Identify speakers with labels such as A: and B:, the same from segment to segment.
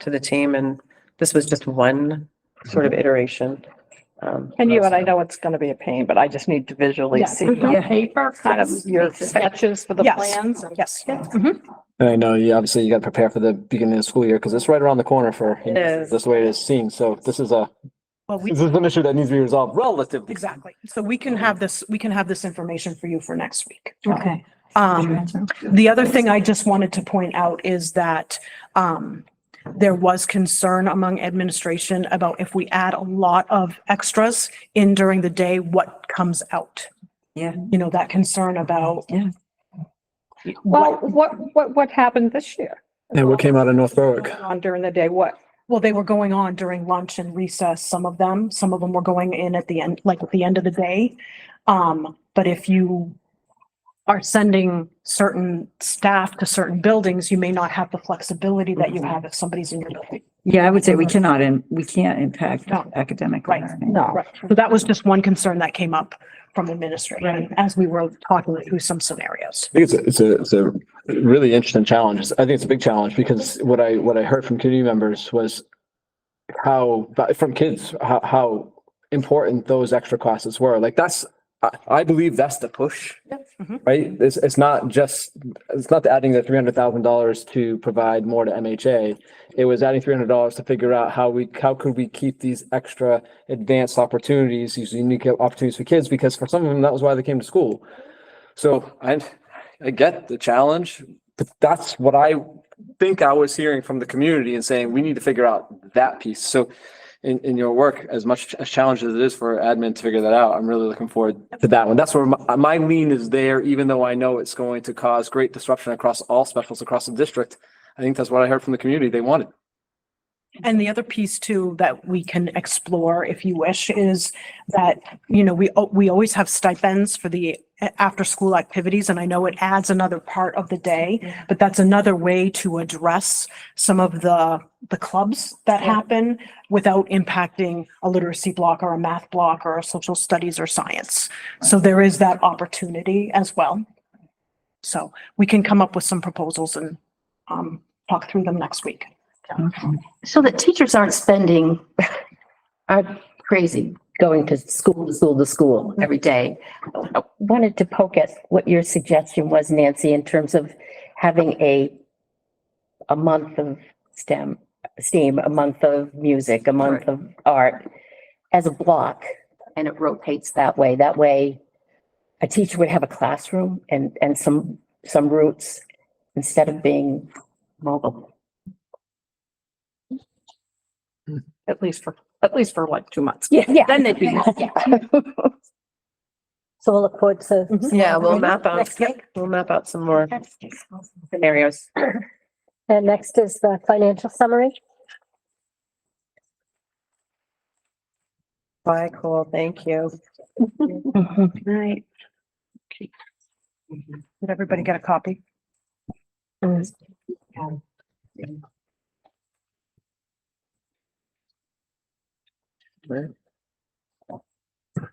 A: to the team and this was just one sort of iteration. Um,
B: And you and I know it's gonna be a pain, but I just need to visually
C: Yeah,
B: see.
C: put it on
D: Mm-hmm.
A: Yeah.
C: Paper, kind of your sketches for the
B: Yes.
C: plans. and-
B: Yes.
C: Yeah. Mhm.
E: And I know you obviously you got to prepare for the beginning of the school year because it's right around the corner for
A: It is.
E: this way it is seen. So this is a
F: Well, we,
E: this is an issue that needs to be resolved relatively.
F: exactly. So we can have this, we can have this information for you for next week.
C: Okay.
F: Um, the other thing I just wanted to point out is that, um, there was concern among administration about if we add a lot of extras in during the day, what comes out?
A: Yeah.
F: You know, that concern about.
A: Yeah.
F: What,
C: Well, what, what, what happened this year?
E: And what came out of North Berwick?
C: On during the day, what?
F: well, they were going on during lunch and recess, some of them, some of them were going in at the end, like at the end of the day. Um, but if you are sending certain staff to certain buildings, you may not have the flexibility that you have if somebody's in your building.
G: Yeah, I would say we cannot, and we can't impact
F: No.
G: academic
F: Right.
G: learning.
C: No.
F: Right. So that was just one concern that came up from administration as we were talking through some scenarios.
E: I think it's a, it's a, it's a really interesting challenge. It's- I think it's a big challenge because what I, what I heard from community members was how, from kids, how, how important those extra classes were. Like that's, I, I believe that's the push.
F: Mhm.
E: Right? It's, it's not just, it's not the adding the three hundred thousand dollars to provide more to MHA. It was adding three hundred dollars to figure out how we, how could we keep these extra advanced opportunities, these unique opportunities for kids? Because for some of them, that was why they came to school. So I, I get the challenge, but that's what I think I was hearing from the community and saying, we need to figure out that piece. So in, in your work, as much a challenge as it is for admin to figure that out, I'm really looking forward to that one. That's where my, my lean is there, even though I know it's going to cause great disruption across all specials across the district. I think that's what I heard from the community. They wanted.
F: And the other piece too that we can explore if you wish is that, you know, we, al- we always have stipends for the a- after-school activities and I know it adds another part of the day, but that's another way to address some of the, the clubs that happen without impacting a literacy block or a math block or a social studies or science. So there is that opportunity as well. So we can come up with some proposals and, um, talk through them next week.
D: So that teachers aren't spending, are crazy going to school to school to school every day. I Wanted to poke at what your suggestion was, Nancy, in terms of having a, a month of STEM, STEAM, a month of music, a month of art as a block. And it rotates that way. That way, a teacher would have a classroom and, and some, some roots instead of being mobile.
B: At least for, at least for like two months.
D: Yeah, yeah.
B: Then they'd be mobile.
D: Yeah.
H: So we'll look forward to.
F: Mhm.
A: Yeah, we'll map out,
H: Next week.
A: we'll map out some more scenarios.
H: And next is the financial summary.
A: Bye, cool, thank you.
B: Mm-hmm. Right. Did everybody get a copy?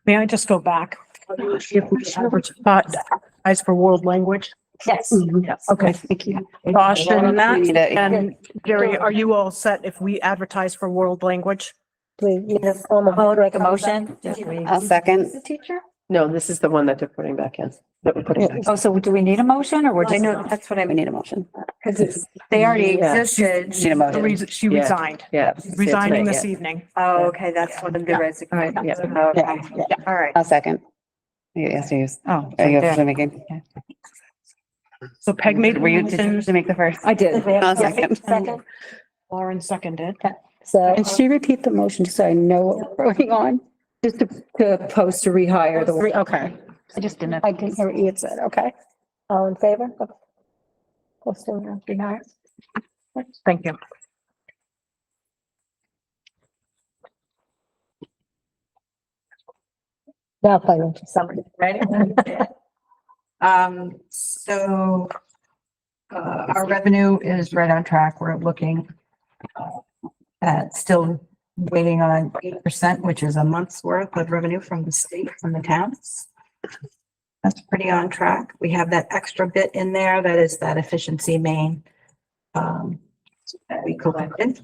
B: May I just go back? If we advertise advertise for world language,
H: Yes.
B: okay.
D: Thank you.
B: Josh and Matt and Jerry,
H: Yeah.
B: are you all set if we advertise for world language?
H: Do we need a formal vote or a motion?
A: Second,
H: The teacher?
A: no, this is the one that they're putting back in, that we're putting back. in.
G: Oh, so do we need a motion or we're
H: I
G: just?
H: know,
G: that's what I need a motion.
H: Because it's,
G: They already
A: Yeah.
G: existed. Need a
F: The
G: motion.
F: reason- She
A: Yeah.
F: resigned,
A: Yeah.
F: resigning
A: Yeah.
F: this evening.
G: Oh, okay, that's one of the resignation.
A: Yeah.
G: Okay, all right.
I: A second. You asked me,
G: Oh.
I: you have to make it.
F: So Peg made a
I: Were you, did you
F: motion,
I: did you make the first?
G: I did.
I: I'll second.
H: second,
F: Lauren seconded.
H: so.
I: Did she repeat the motion just so I know what we're going on?
G: Just to, to post to rehire the.
I: Okay.
G: I just didn't.
H: I didn't hear what you had said, okay. All in favor? Posting of denial.
F: Thank you.
H: Now financial summary.
C: Right? Um, so uh, our revenue is right on track. We're looking uh, at still waiting on eight percent, which is a month's worth of revenue from the state, from the towns. That's pretty on track. We have that extra bit in there. That is that efficiency main um, that we collected.